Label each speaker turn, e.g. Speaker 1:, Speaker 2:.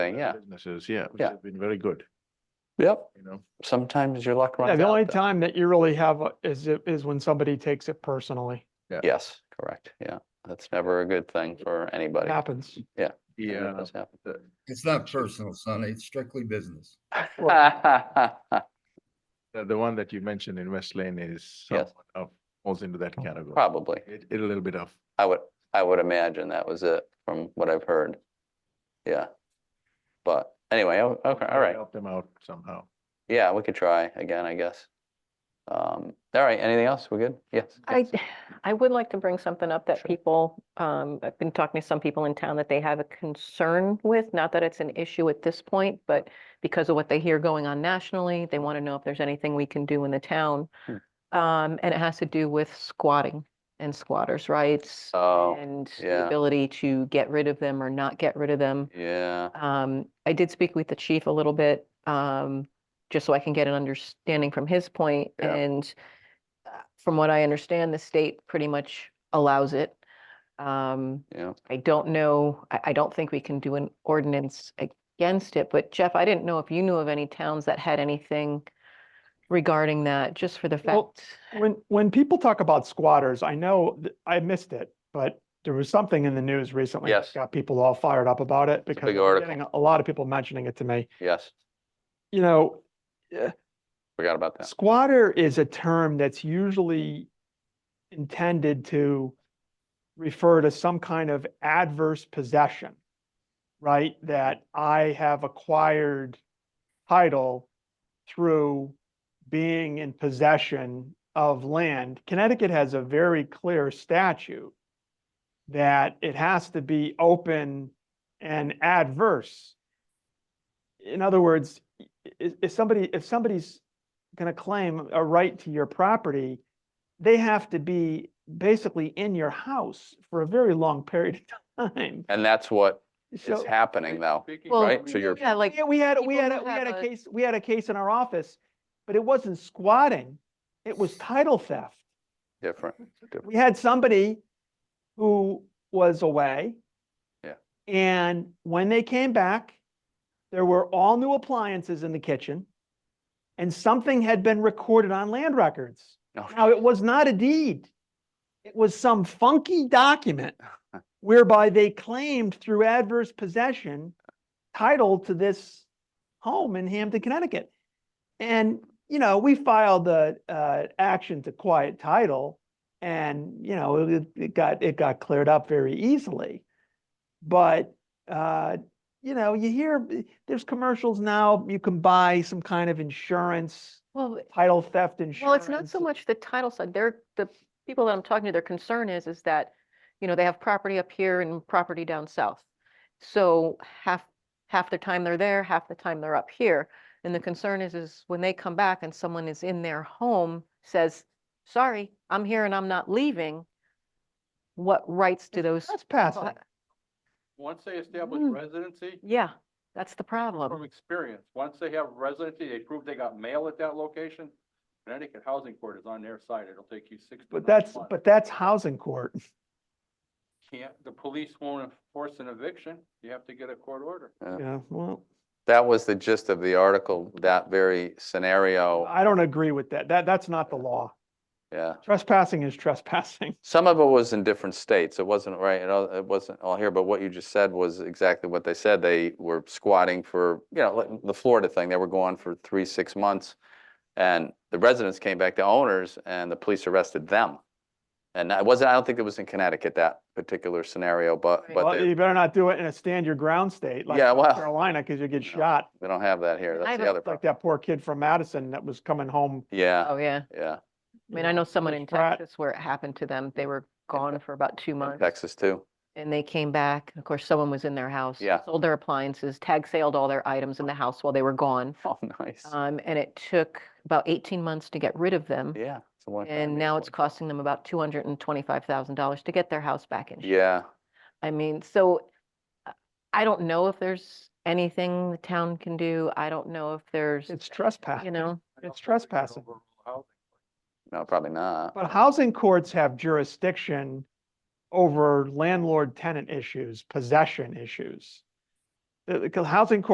Speaker 1: thing, yeah.
Speaker 2: Businesses, yeah, which
Speaker 1: Yeah.
Speaker 2: has been very good,
Speaker 1: Yep,
Speaker 2: you know.
Speaker 1: sometimes your luck
Speaker 3: Yeah,
Speaker 1: runs
Speaker 3: the only
Speaker 1: out. though.
Speaker 3: time that you really have a- is, if- is when somebody takes it personally.
Speaker 1: Yes, correct, yeah. That's never a good thing for
Speaker 3: It
Speaker 1: anybody.
Speaker 3: happens.
Speaker 1: It never
Speaker 2: Yeah,
Speaker 1: does happen.
Speaker 4: It's not personal, Sonny. It's strictly business.
Speaker 2: the, the one that you mentioned in West Lane is
Speaker 1: Yes.
Speaker 2: somewhat of, falls into that category.
Speaker 1: Probably.
Speaker 2: It, it a little bit of,
Speaker 1: I would, I would imagine that was it from what I've heard. Yeah. But anyway, o- okay, all right.
Speaker 2: Help uh, them out somehow.
Speaker 1: Yeah, we could try again, I guess. Um, all right, anything else? We're good? Yes.
Speaker 5: I,
Speaker 1: yes.
Speaker 5: I would like to bring something up that
Speaker 1: Sure.
Speaker 5: people, um, I've been talking to some people in town that they have a concern with, not that it's an issue at this point, but because of what they hear going on nationally, they want to know if there's anything we can do in the town.
Speaker 1: Hmm.
Speaker 5: Um, and it has to do with squatting and squatters' rights
Speaker 1: Oh,
Speaker 5: and
Speaker 1: yeah.
Speaker 5: the ability to get rid of them or not get rid of them.
Speaker 1: Yeah,
Speaker 5: Um, I did speak with the chief a little bit, um, just so I can get an understanding from his point,
Speaker 1: Yeah.
Speaker 5: And uh, from what I understand, the state pretty much allows it. Um,
Speaker 1: yeah.
Speaker 5: I don't know, I, I don't think we can do an ordinance against it, but Jeff, I didn't know if you knew of any towns that had anything regarding that, just for the
Speaker 3: Well,
Speaker 5: fact.
Speaker 3: When, when people talk about squatters, I know, th- I missed it, but there was something in the news recently. that
Speaker 1: Yes.
Speaker 3: Got people all fired up about it because
Speaker 1: big
Speaker 3: I was
Speaker 1: article.
Speaker 3: getting A lot of people mentioning it to me.
Speaker 1: Yes,
Speaker 3: You know,
Speaker 1: forgot about that.
Speaker 3: Squatter is a term that's usually intended to refer to some kind of adverse possession, right? That I have acquired title through being in possession of land. Connecticut has a very clear statute that it has to be open and adverse. In other words, i- i- if somebody, if somebody's going to claim a right to your property, they have to be basically in your house for a very long period of time.
Speaker 1: And that's what is
Speaker 3: So,
Speaker 1: happening though,
Speaker 5: Well,
Speaker 1: right? So you're,
Speaker 5: Yeah, like,
Speaker 3: yeah, we had, we
Speaker 5: people
Speaker 3: had,
Speaker 5: who
Speaker 3: a- we had
Speaker 5: have
Speaker 3: a
Speaker 5: a-
Speaker 3: case, we had a case in our office, but it wasn't squatting. It was title theft.
Speaker 1: different, different.
Speaker 3: We had somebody who was away.
Speaker 1: Yeah.
Speaker 3: And when they came back, there were all new appliances in the kitchen and something had been recorded on land records.
Speaker 1: No,
Speaker 3: Now, it was not a deed. It was some funky document whereby they claimed through adverse possession title to this home in Hampton, Connecticut. And, you know, we filed the uh, action to quiet title and, you know, it, it got, it got cleared up very easily. But, uh, you know, you hear, there's commercials now, you can buy some kind of insurance,
Speaker 5: well,
Speaker 3: title theft insurance.
Speaker 5: Well, it's not so much the title side. They're, the people that I'm talking to, their concern is, is that, you know, they have property up here and property down south. So half, half the time they're there, half the time they're up here. And the concern is, is when they come back and someone is in their home, says, sorry, I'm here and I'm not leaving, what rights do those?
Speaker 3: That's passive.
Speaker 5: people ha-
Speaker 6: Once they establish
Speaker 1: Hmm.
Speaker 5: Mm.
Speaker 6: residency,
Speaker 5: Yeah, that's the
Speaker 6: from
Speaker 5: problem.
Speaker 6: experience, once they have residency, they prove they got mail at that location, Connecticut Housing Court is on their side. It'll take you six to
Speaker 3: But
Speaker 6: nine
Speaker 3: that's,
Speaker 6: months.
Speaker 3: but that's housing court.
Speaker 6: Can't, the police won't enforce an eviction. You have to get a court order.
Speaker 3: Yeah, well,
Speaker 1: That was the gist of the article, that very scenario,
Speaker 3: I don't agree with that. That, that's not the law.
Speaker 1: yeah.
Speaker 3: Trespassing is trespassing.
Speaker 1: Some of it was in different states. It wasn't right, it all- it wasn't all here, but what you just said was exactly what they said. They were squatting for, you know, like the Florida thing, they were gone for three, six months. And the residents came back, the owners, and the police arrested them. And I wasn't, I don't think it was in Connecticut, that particular scenario, but,
Speaker 5: Right.
Speaker 1: but
Speaker 3: Well,
Speaker 1: they,
Speaker 3: you better not do it in a stand your ground state like
Speaker 1: Yeah, well,
Speaker 3: South Carolina, because you get
Speaker 1: no.
Speaker 3: shot.
Speaker 1: they don't have that here. That's
Speaker 5: have
Speaker 1: the
Speaker 5: a-
Speaker 1: other
Speaker 3: Like
Speaker 1: problem.
Speaker 3: that poor kid from Madison that was coming home.
Speaker 1: Yeah,
Speaker 5: Oh, yeah.
Speaker 1: yeah.
Speaker 5: I mean, I know someone in
Speaker 3: Pratt.
Speaker 5: Texas where it happened to them. They were gone for about two
Speaker 1: In
Speaker 5: months.
Speaker 1: Texas too.
Speaker 5: And they came back, of course, someone was in their house.
Speaker 1: Yeah.
Speaker 5: Sold their appliances, tag saled all their items in the house while they were gone.
Speaker 1: Oh, nice.
Speaker 5: Um, and it took about eighteen months to get rid of them.
Speaker 1: Yeah. it's a one- I
Speaker 5: And
Speaker 1: mean,
Speaker 5: now it's
Speaker 1: one-
Speaker 5: costing them about two hundred and twenty-five thousand dollars to get their house back in. shape.
Speaker 1: Yeah,
Speaker 5: I mean, so uh, I don't know if there's anything the town can do. I don't know if there's,
Speaker 3: It's
Speaker 5: you
Speaker 3: trespassing.
Speaker 5: know,
Speaker 6: I don't
Speaker 3: It's
Speaker 6: think we can
Speaker 3: trespassing.
Speaker 6: overrule housing.
Speaker 1: no, probably not.
Speaker 3: But housing courts have jurisdiction over landlord tenant issues, possession issues. The, the housing court